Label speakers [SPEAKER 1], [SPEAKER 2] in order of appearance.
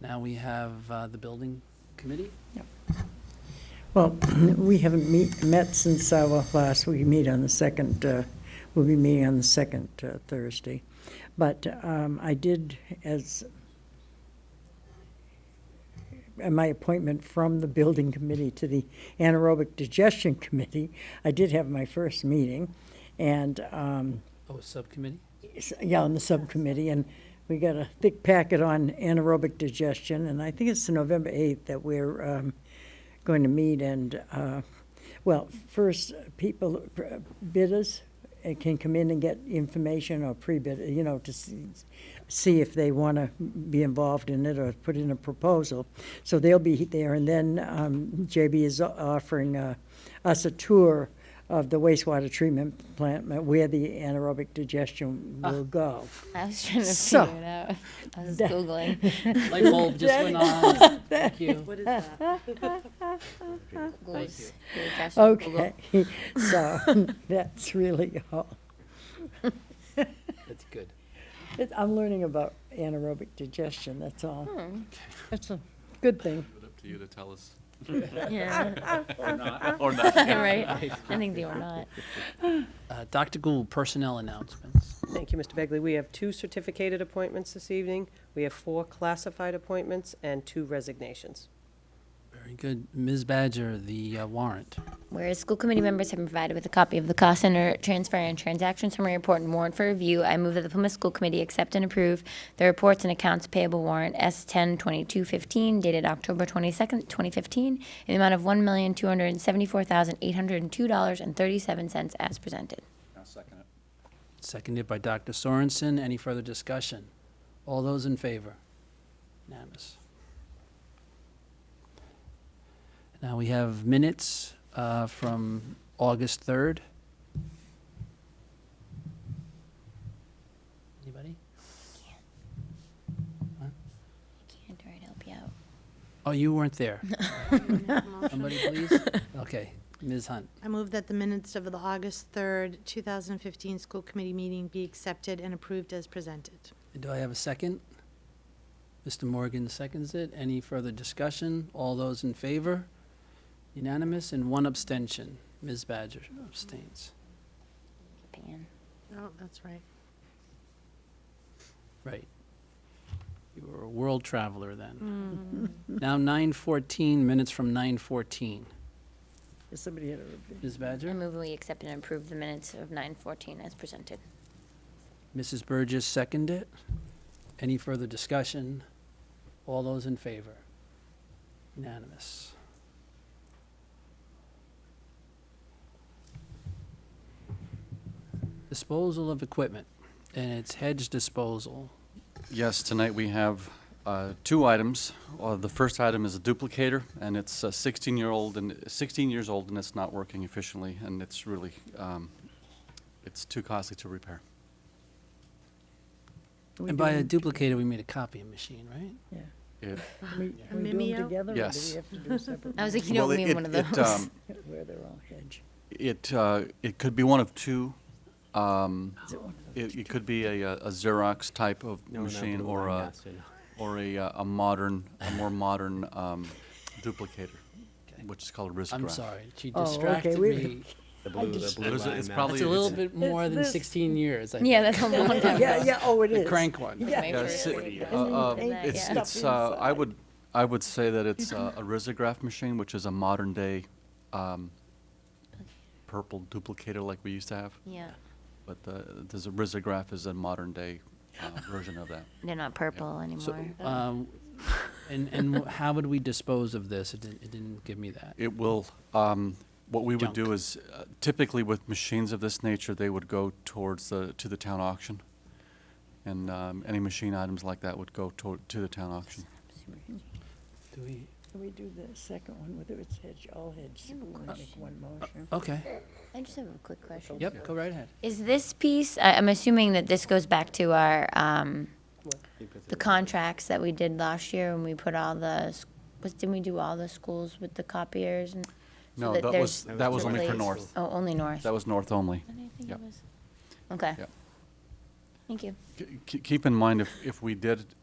[SPEAKER 1] Now we have uh, the building committee.
[SPEAKER 2] Well, we haven't meet, met since our last, we meet on the second, uh, we'll be meeting on the second uh, Thursday. But um, I did, as, uh, my appointment from the building committee to the anaerobic digestion committee, I did have my first meeting, and, um,
[SPEAKER 1] Oh, a subcommittee?
[SPEAKER 2] s- yeah, on the subcommittee, and we got a thick packet on anaerobic digestion, and I think it's November 8th that we're um, going to meet, and, uh, well, first, people, uh, bidders uh, can come in and get information or pre-bid, you know, to see- see if they want to be involved in it or put in a proposal. So they'll be there, and then um, JB is o- offering uh, us a tour of the wastewater treatment plant uh, where the anaerobic digestion will go.
[SPEAKER 3] I was trying to
[SPEAKER 2] So-
[SPEAKER 3] figure it out. I was
[SPEAKER 2] That-
[SPEAKER 3] googling,
[SPEAKER 1] Light bulb just went on. Thank you.
[SPEAKER 4] What is that?
[SPEAKER 3] Googles, Googles, Google.
[SPEAKER 2] Okay, so that's really all.
[SPEAKER 1] That's good.
[SPEAKER 2] It- I'm learning about anaerobic digestion, that's all. That's a good thing.
[SPEAKER 5] Leave it up to you to tell us.
[SPEAKER 3] Yeah,
[SPEAKER 5] Or not.
[SPEAKER 3] right. I think they were not.
[SPEAKER 1] Uh, Dr. Gould, personnel announcements.
[SPEAKER 4] Thank you, Mr. Begley. We have two certificated appointments this evening. We have four classified appointments and two resignations.
[SPEAKER 1] Very good. Ms. Badger, the uh, warrant.
[SPEAKER 3] Whereas school committee members have been provided with a copy of the cost center transfer and transaction summary report and warrant for review, I move that the Plymouth School Committee accept and approve the reports and accounts payable warrant S ten twenty-two fifteen dated October twenty-second, twenty fifteen, in the amount of one million, two hundred and seventy-four thousand, eight hundred and two dollars and thirty-seven cents as presented.
[SPEAKER 5] I'll second it.
[SPEAKER 1] Seconded by Dr. Sorensen. Any further discussion? All those in favor? Unanimous. Now we have minutes uh, from August 3rd. Anybody?
[SPEAKER 3] Can't write help you out.
[SPEAKER 1] Oh, you weren't there.
[SPEAKER 6] I
[SPEAKER 1] Somebody, please? Okay, Ms. Hunt.
[SPEAKER 6] move that the minutes of the August 3rd, 2015 school committee meeting be accepted and approved as presented.
[SPEAKER 1] Do I have a second? Mr. Morgan seconds it. Any further discussion? All those in favor? Unanimous and one abstention. Ms. Badger abstains.
[SPEAKER 3] Pan.
[SPEAKER 6] Oh, that's right.
[SPEAKER 1] Right. You were a world traveler then. Now 9:14, minutes from 9:14.
[SPEAKER 2] Is Somebody had a review.
[SPEAKER 1] Ms.
[SPEAKER 3] I
[SPEAKER 1] Badger?
[SPEAKER 3] move we accept and approve the minutes of nine fourteen as presented.
[SPEAKER 1] Mrs. Burgess seconded it. Any further discussion? All those in favor? Unanimous. Disposal of equipment, and it's hedge disposal.
[SPEAKER 5] Yes, tonight we have uh, two items. Uh, The first item is a duplicator, and it's uh, 16-year-old, and 16 years old, and it's not working efficiently, and it's really, um, it's too costly to repair.
[SPEAKER 2] We
[SPEAKER 1] And by a
[SPEAKER 2] doing-
[SPEAKER 1] duplicator, we made a copying machine, right?
[SPEAKER 2] yeah.
[SPEAKER 5] It-
[SPEAKER 2] We
[SPEAKER 6] A
[SPEAKER 2] we do
[SPEAKER 6] mimeo?
[SPEAKER 2] them together, or do
[SPEAKER 5] Yes.
[SPEAKER 2] we have to do separate?
[SPEAKER 3] I was like, you
[SPEAKER 5] Well,
[SPEAKER 3] don't
[SPEAKER 5] it-
[SPEAKER 3] mean
[SPEAKER 5] it-
[SPEAKER 3] one of
[SPEAKER 5] it,
[SPEAKER 3] those.
[SPEAKER 5] um,
[SPEAKER 2] Where they're all hedge.
[SPEAKER 5] It, uh, it could be one of two. um,
[SPEAKER 2] Is it one of
[SPEAKER 5] It it could be a uh, a Xerox type of machine or
[SPEAKER 7] uh,
[SPEAKER 5] a, or a uh, a modern, a more modern um, duplicator,
[SPEAKER 1] Okay.
[SPEAKER 5] which is called Risgraph.
[SPEAKER 1] I'm sorry, she
[SPEAKER 2] Oh, okay,
[SPEAKER 1] distracted
[SPEAKER 2] we-
[SPEAKER 1] me.
[SPEAKER 7] The
[SPEAKER 2] I
[SPEAKER 7] blue, the
[SPEAKER 2] just-
[SPEAKER 7] blue
[SPEAKER 5] There's a-
[SPEAKER 7] line
[SPEAKER 5] it's
[SPEAKER 7] mouse.
[SPEAKER 5] probably-
[SPEAKER 1] It's a little bit more than
[SPEAKER 2] this.
[SPEAKER 1] 16 years, I think.
[SPEAKER 3] Yeah, that's a long time
[SPEAKER 2] those? Yeah,
[SPEAKER 3] ago.
[SPEAKER 2] yeah, oh, it
[SPEAKER 1] The
[SPEAKER 2] is.
[SPEAKER 1] crank one.
[SPEAKER 2] Yeah.
[SPEAKER 3] My
[SPEAKER 5] Yeah,
[SPEAKER 3] first
[SPEAKER 5] si-
[SPEAKER 3] order.
[SPEAKER 5] uh, uh,
[SPEAKER 2] Isn't
[SPEAKER 3] that,
[SPEAKER 5] It's,
[SPEAKER 3] yeah.
[SPEAKER 5] it's, uh, I
[SPEAKER 2] inside.
[SPEAKER 5] would, I would say that it's uh, a risograph machine, which is a modern-day um, purple duplicator like we used to have,
[SPEAKER 3] Yeah,
[SPEAKER 5] but the, there's a risograph is a modern-day uh, version of that.
[SPEAKER 3] they're not purple anymore.
[SPEAKER 5] uh,
[SPEAKER 1] Um, And, and wh- how would we dispose of this? It didn't, it didn't give me that.
[SPEAKER 5] It will, um, what we would do
[SPEAKER 1] Junk.
[SPEAKER 5] is uh, typically with machines of this nature, they would go towards the, to the town auction. And um, any machine items like that would go toward, to the town auction.
[SPEAKER 1] Do we?
[SPEAKER 2] Can we do the second one, whether it's hedge, all hedge, we want to make one motion?
[SPEAKER 1] Okay,
[SPEAKER 3] I just have a quick question.
[SPEAKER 1] yep, go right ahead.
[SPEAKER 3] Is this piece, I, I'm assuming that this goes back to our, um, the contracts that we did last year when we put all the, s- was, didn't we do all the schools with the copiers and? so
[SPEAKER 5] No,
[SPEAKER 3] that
[SPEAKER 5] that
[SPEAKER 3] there's
[SPEAKER 5] was, that was only for
[SPEAKER 3] replace-
[SPEAKER 5] north.
[SPEAKER 3] Oh, only North.
[SPEAKER 5] That was north only.
[SPEAKER 3] I didn't think it
[SPEAKER 5] Yep.
[SPEAKER 3] was- Okay.
[SPEAKER 5] Yep.
[SPEAKER 3] Thank you.
[SPEAKER 5] K- k- Keep in mind, if, if we did